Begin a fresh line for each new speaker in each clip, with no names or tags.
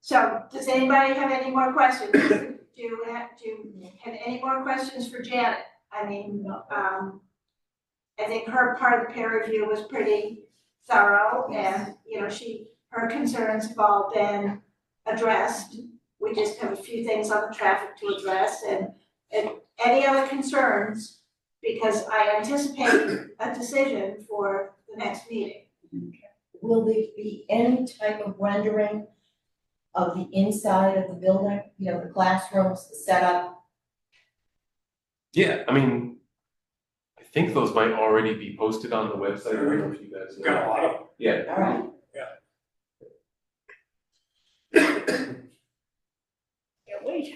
So does anybody have any more questions? Do you have, do you have any more questions for Janet? I mean, um, I think her part of the peer review was pretty thorough and, you know, she, her concerns have all been addressed. We just have a few things on the traffic to address and, and any other concerns? Because I anticipate a decision for the next meeting.
Will there be any type of rendering of the inside of the building, you know, the classrooms, the setup?
Yeah, I mean, I think those might already be posted on the website, I don't know if you guys. know.
Got a lot of,
Yeah,
All right,
Can't wait.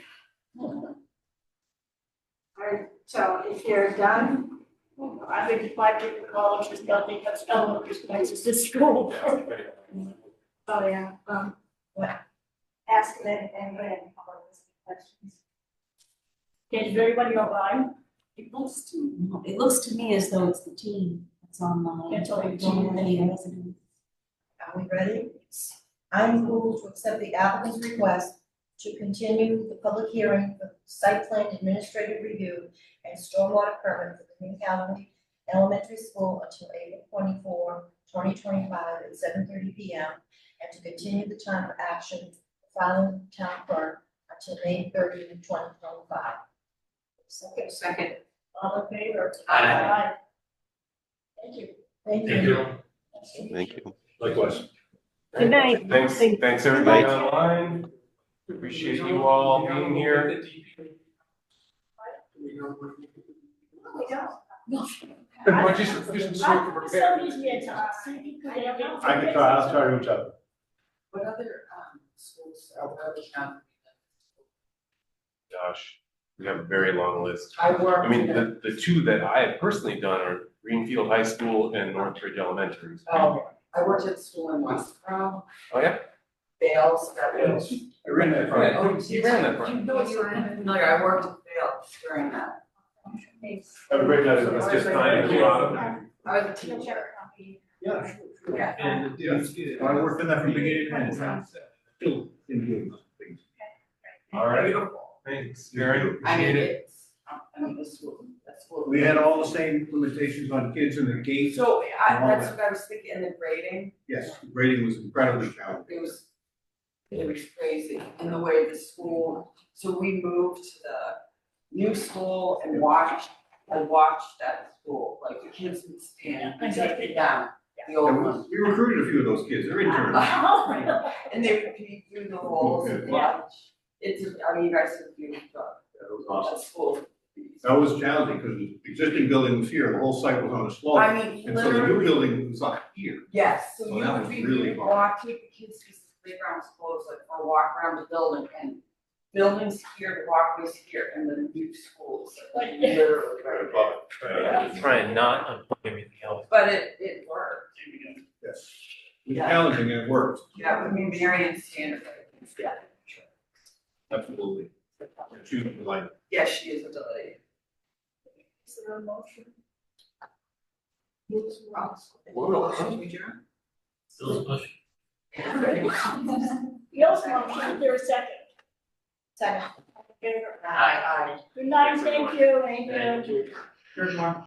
Alright, so if you're done,
Oh, I would like to call it just nothing but elementary school, it's just school.
oh yeah, um,
ask them and then follow those questions.
Did everybody arrive?
It looks to, it looks to me as though it's the team that's online.
It's all the
I don't have any residents.
are we ready? I'm moved to accept the applicant's request to continue the public hearing for site plan administrative review and stormwater permit for the Green County Elementary School until April 24, 2025, at seven thirty P M. And to continue the time of action following town clerk until May 30, 2025.
Second,
Second.
all in favor?
Aye.
Thank you.
Thank
thank you,
Thank you.
likewise.
Good night.
thanks,
Thank-
thanks everybody online, appreciate you all being here.
No, we don't.
Why don't you just- just sort of
I-
prepare?
Uh, Somebody's near to us, see if you could have-
I can try, I'll try to reach out.
What other, um, schools are working on?
Gosh, we have a very long list.
I work.
I mean, the, the two that I have personally done are Greenfield High School and Northbridge Elementary.
Um, I worked at school in Westboro,
Oh, yeah?
Bales, that was.
I ran that
Yeah,
from,
you ran that front.
You know, you were familiar, I worked at Bales during that.
have a great night, so it's just kind of, uh,
I was a teacher.
yeah.
Yeah.
And, yeah, I worked in that from beginning to end. Still in doing those things. All right, thanks, Mary,
I mean,
appreciate it.
it's, I mean, the school, the school.
We had all the same limitations on kids and the gates,
So I, that's what I was thinking, and the grading,
yes, grading was incredibly challenging.
it was, it was crazy, and the way the school, so we moved to the new school and watched, I watched that school, like the kids would stand and take it down, the old one.
We recruited a few of those kids, they're interns.
Ah.
Oh, really?
And they would peek through the holes and
Okay.
watch, it's, I mean, you guys have been, uh,
That was awesome.
at school.
That was challenging because the existing building was here, the whole site was on Oh, a
I
slope.
mean,
And so the new
literally,
building was up here.
yes, so
Well, that was
you, we
really
would
hard.
walk, take the kids to the playgrounds close, like, or walk around the building and buildings here, walkways here, and then new schools, like,
Like-
literally right there.
Try and not unplug everything else.
But it, it worked,
Yes. It was challenging and it worked.
yeah, I mean, Marion Standard. Yeah.
Absolutely. Choose the line.
Yes, she is a delegate.
Is there a motion? We also motion, there a second.
Second.
Favor?
Aye.
Good night,
Thanks, everyone.
thank you, thank you.
Good one.